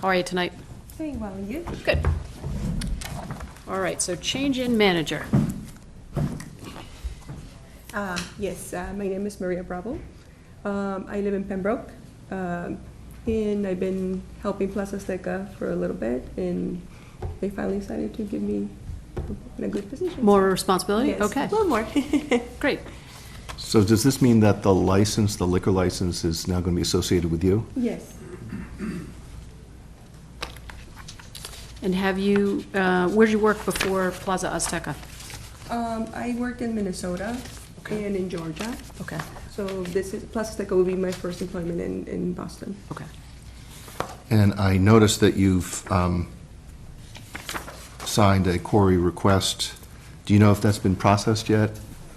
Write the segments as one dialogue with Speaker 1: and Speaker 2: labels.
Speaker 1: How are you tonight?
Speaker 2: Very well, you?
Speaker 1: Good. All right, so change in manager.
Speaker 2: Uh, yes, uh, my name is Maria Bravo. Um, I live in Pembroke, um, and I've been helping Plaza Seca for a little bit, and they finally decided to give me in a good position.
Speaker 1: More responsibility?
Speaker 2: Yes,
Speaker 1: Okay,
Speaker 2: A little more.
Speaker 1: great.
Speaker 3: So does this mean that the license, the liquor license, is now going to be associated with you?
Speaker 2: yes.
Speaker 1: And have you, uh, where did you work before Plaza Azteca?
Speaker 2: Um, I worked in Minnesota
Speaker 1: Okay.
Speaker 2: and in Georgia,
Speaker 1: Okay,
Speaker 2: so this is, Plaza Seca will be my first employment in, in Boston.
Speaker 1: okay.
Speaker 3: And I noticed that you've um, signed a query request. Do you know if that's been processed yet?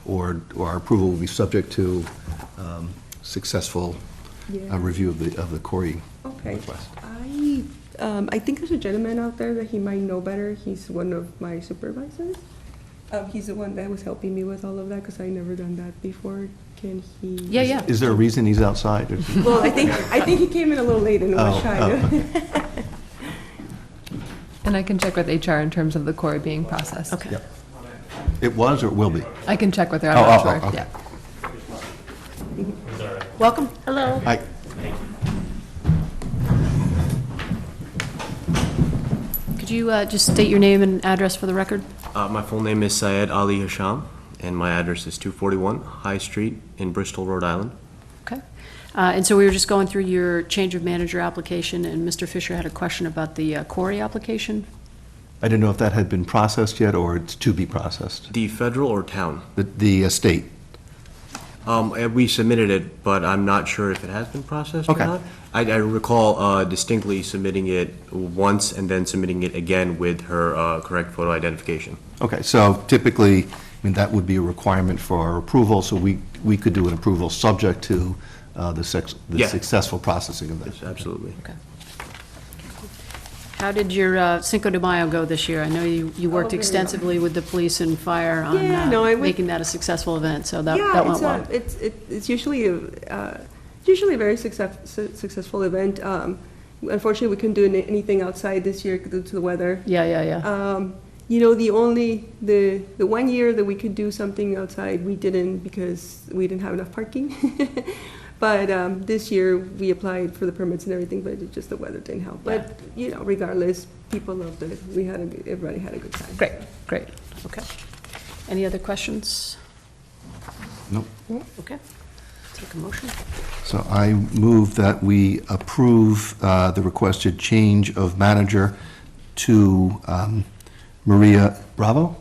Speaker 3: Or or our approval will be subject to um, successful
Speaker 2: Yeah.
Speaker 3: uh, review of the, of the query
Speaker 2: Okay.
Speaker 3: request?
Speaker 2: I, um, I think there's a gentleman out there that he might know better. He's one of my supervisors. Um, he's the one that was helping me with all of that because I never done that before. Can he?
Speaker 1: Yeah, yeah.
Speaker 3: Is there a reason he's outside? Or-
Speaker 2: Well, I think, I think he came in a little late and was
Speaker 3: Oh,
Speaker 2: shy.
Speaker 3: oh,
Speaker 4: And I can check with HR in terms of the query being processed.
Speaker 1: Okay.
Speaker 3: Yep. It was or it will be?
Speaker 4: I can check with her, I'm
Speaker 3: Oh,
Speaker 4: not
Speaker 3: oh, oh,
Speaker 4: sure,
Speaker 3: okay.
Speaker 4: yeah.
Speaker 1: Welcome. Hello.
Speaker 3: I-
Speaker 1: Could you uh, just state your name and address for the record?
Speaker 5: Uh, my full name is Syed Ali Hasham, and my address is 241 High Street in Bristol, Rhode Island.
Speaker 1: Okay. Uh, And so we were just going through your change of manager application, and Mr. Fisher had a question about the uh, quarry application.
Speaker 3: I didn't know if that had been processed yet or it's to be processed.
Speaker 5: The federal or town?
Speaker 3: The- The uh, state?
Speaker 5: Um, eh, we submitted it, but I'm not sure if it has been processed or
Speaker 3: Okay.
Speaker 5: not. I, I recall uh, distinctly submitting it once and then submitting it again with her uh, correct photo identification.
Speaker 3: Okay, so typically, I mean, that would be a requirement for our approval, so we, we could do an approval subject to uh, the sex, the
Speaker 5: Yeah.
Speaker 3: successful processing of
Speaker 5: Yes,
Speaker 3: that.
Speaker 5: absolutely.
Speaker 1: How did your uh, Cinco de Mayo go this year? I know you, you worked
Speaker 2: very well.
Speaker 1: extensively with the police and fire on
Speaker 2: Oh, Yeah, no, I
Speaker 1: uh,
Speaker 2: went-
Speaker 1: making that a successful event, so that,
Speaker 2: yeah,
Speaker 1: that went
Speaker 2: it's,
Speaker 1: well.
Speaker 2: a, it's it, it's usually a, uh, usually a very success, su- successful event. Um, unfortunately, we couldn't do any- anything outside this year due to the weather.
Speaker 1: Yeah, yeah, yeah.
Speaker 2: Um, you know, the only, the, the one year that we could do something outside, we didn't because we didn't have enough parking. But, um, this year, we applied for the permits and everything, but it just the weather didn't help. But, you know, regardless, people loved it. We had a, good- everybody had a good time.
Speaker 1: Great, great, okay. Any other questions?
Speaker 3: Nope.
Speaker 1: Okay. Take a motion.
Speaker 3: So I move that we approve uh, the requested change of manager to um, Maria Bravo,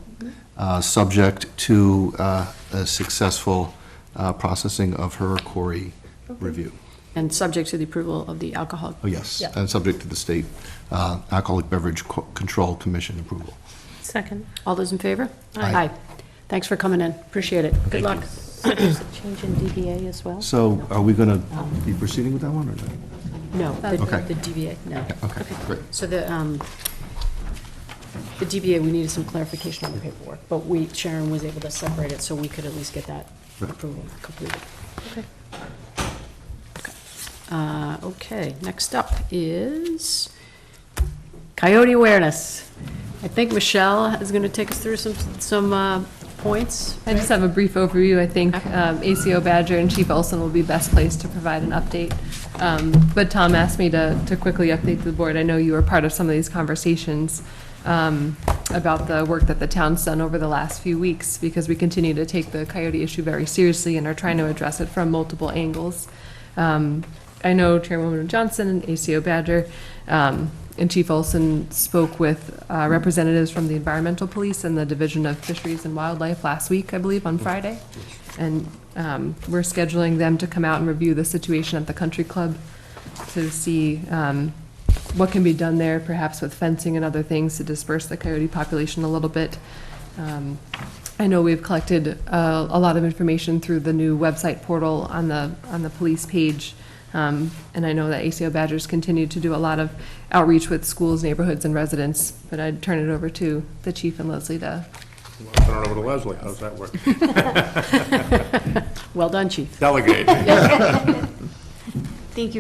Speaker 3: uh, subject to uh, a successful uh, processing of her query review.
Speaker 1: And subject to the approval of the alcohol.
Speaker 3: Oh, yes,
Speaker 1: Yeah.
Speaker 3: and subject to the state uh, Alcoholic Beverage Co- Control Commission approval.
Speaker 6: Second.
Speaker 1: All those in favor?
Speaker 3: Aye.
Speaker 1: Thanks for coming in, appreciate it. Good luck.
Speaker 6: Change in DBA as well?
Speaker 3: So are we going to be proceeding with that one or not?
Speaker 1: No, the
Speaker 3: Okay.
Speaker 1: the DBA, no.
Speaker 3: okay, great.
Speaker 1: So the, um, the DBA, we needed some clarification on the paperwork, but we, Sharon was able to separate it, so we could at least get that
Speaker 3: Right.
Speaker 1: approval completed. Okay. Uh, Okay, next up is coyote awareness. I think Michelle is going to take us through some, some uh, points.
Speaker 4: I just have a brief overview, I think um, ACO Badger and Chief Olson will be best placed to provide an update. Um, But Tom asked me to, to quickly update the board, I know you were part of some of these conversations um, about the work that the town's done over the last few weeks, because we continue to take the coyote issue very seriously and are trying to address it from multiple angles. Um, I know Chairwoman Johnson and ACO Badger um, and Chief Olson spoke with uh, representatives from the Environmental Police and the Division of Fisheries and Wildlife last week, I believe, on Friday. And um, we're scheduling them to come out and review the situation at the country club to see um, what can be done there, perhaps with fencing and other things to disperse the coyote population a little bit. Um, I know we've collected uh, a lot of information through the new website portal on the, on the police page. Um, And I know that ACO Badgers continue to do a lot of outreach with schools, neighborhoods, and residents. But I'd turn it over to the chief and Leslie to
Speaker 7: Turn it over to Leslie, how's that work?
Speaker 1: Well done, chief.
Speaker 7: Delegate.